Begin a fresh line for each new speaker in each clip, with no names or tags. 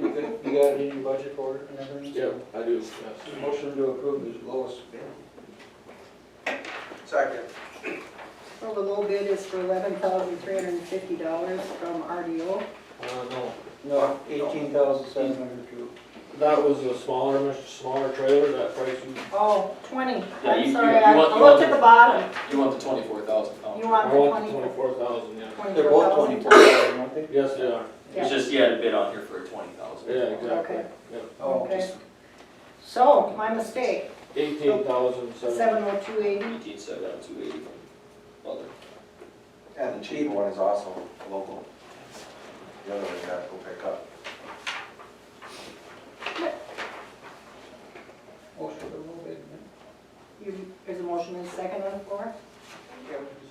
got it in your budget for it and everything?
Yeah, I do,
Motion to approve is lowest bid.
Second.
Well, the low bid is for eleven thousand three hundred and fifty dollars from RDO.
Uh, no,
No, eighteen thousand seven hundred two.
that was a smaller, much smaller trailer, that price was
Oh, twenty,
Yeah, you-
I'm
you-
sorry,
you
I
want-
I
you want
looked at
the-
the bottom,
You want the twenty-four thousand pounds?
you
I want
want
the
the twenty,
twenty-four thousand, yeah.
They're
twenty-four
both
thousand?
twenty-four thousand, aren't they?
Yes, they are,
It's just, you had a bid on here for twenty thousand.
yeah, exactly.
Okay.
Oh,
Okay, so, my mistake,
Eighteen thousand seven,
seven oh two eighty,
Eighteen seven oh two eighty from other.
And the cheap one is also local. The other one you have to go pick up.
Motion to low bid.
you, there's a motion and a second on the floor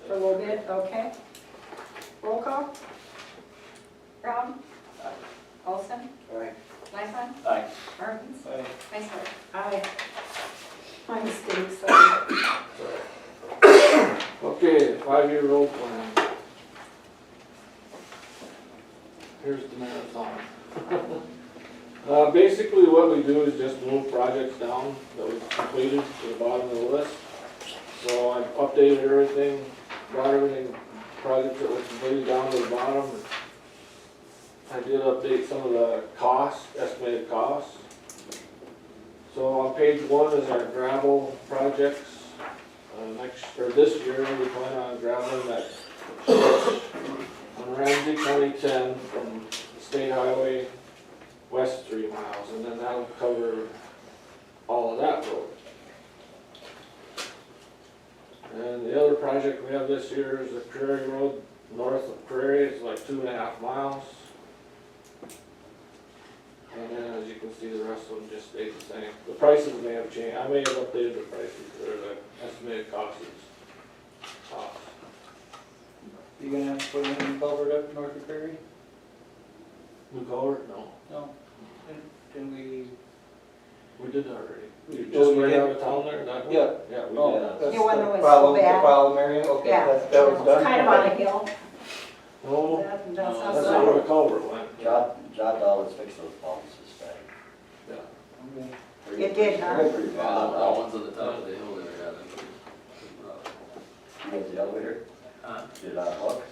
for low bid, okay? Roll call? Brown?
Aye.
Olson?
Aye.
Lifeline?
Aye.
Martins?
Aye.
Iceberg? Aye. My mistake, sorry.
okay, five-year road plan. Here's the marathon. Uh, basically what we do is just move projects down that we've completed to the bottom of the list. So I've updated everything, brought everything, projects that were completed down to the bottom. I did update some of the costs, estimated costs. So on page one is our gravel projects. Uh, next, or this year, we plan on graveling that stretch on Ramsey County ten from State Highway west three miles, and then that'll cover all of that road. And the other project we have this year is the Prairie Road, north of Prairie, it's like two and a half miles. And then, as you can see, the rest of them just stayed the same. The prices may have changed, I may have updated the prices, or the estimated costs. Costs.
You gonna have to put in a culvert up north of Prairie?
New color? No,
No. Didn't we?
we did that already. You
Oh,
just
you
ran
did?
out of town there, that one?
Yeah.
Yeah, we did.
Oh,
that.
that's
The one that was so
problem- the
bad.
problem area, okay,
Yeah.
that, that was done?
It's kind of on a
Okay.
hill.
No,
That- that's
No,
how
That's
sorry.
not where the culvert went.
Job, job dollars fix those problems this time.
Okay.
It did, huh?
They're pretty
Yeah,
bad.
that that one's on the top of the hill there, yeah, that's pretty- pretty rough.
You got the elevator,
Huh?
did it on hook,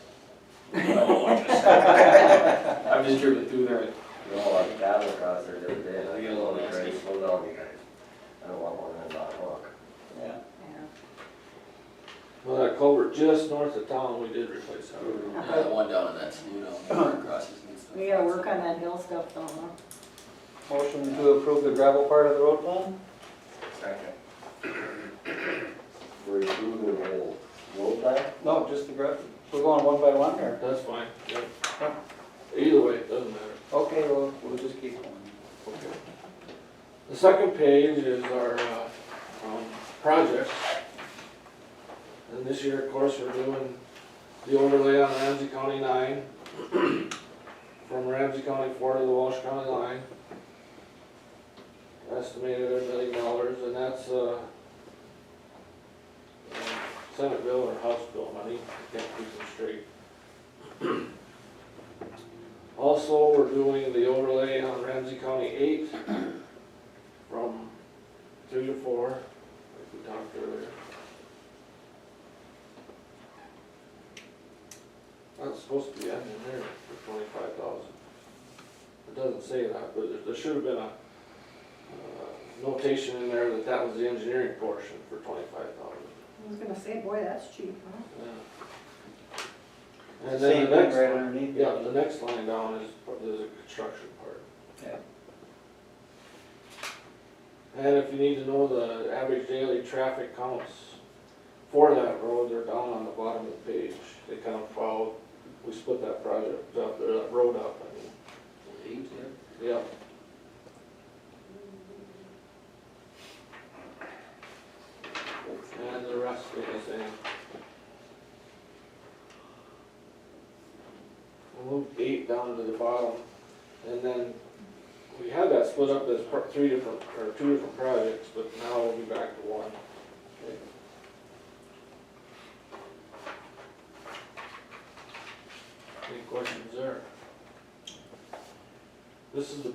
No, I'm just- I've just driven through there,
you know, like cattle across there the other day, and I
Yeah,
go, "Oh,
that's
great,
good.
slow down, you guys. I don't want one that's on hook.
Yeah.
Well, that culvert just north of town, we did replace that.
Yeah, that one down in that slough down there, crosses and stuff.
We gotta work on that hill stuff though, huh?
Motion to approve the gravel part of the road plan?
Second.
Were you through the whole road plan?
No, just the gravel, we're going one by one or?
That's fine, yeah. Either way, it doesn't matter.
Okay, well, we'll just keep going.
The second page is our, uh, um, projects. And this year, of course, we're doing the overlay on Ramsey County nine, from Ramsey County four to the Walsh County line. Estimated at a million dollars, and that's, uh, uh, Senate bill or House bill money, I can't keep them straight. Also, we're doing the overlay on Ramsey County eight, from three to four, like we talked earlier. That's supposed to be ending there for twenty-five thousand. It doesn't say that, but there, there should have been a, uh, notation in there that that was the engineering portion for twenty-five thousand.
I was gonna say, boy, that's cheap, huh?
Same
And then the
thing
next
right
one.
underneath.
Yeah, the next line down is, is a construction part.
Yeah.
And if you need to know the average daily traffic counts for that road, they're down on the bottom of the page. They count twelve, we split that project up, or that road up, I mean.
Eight, yeah.
Yeah. And the rest is the same. We'll move eight down to the bottom, and then we had that split up as part, three different, or two different projects, but now we'll be back to one. Any questions there? This is the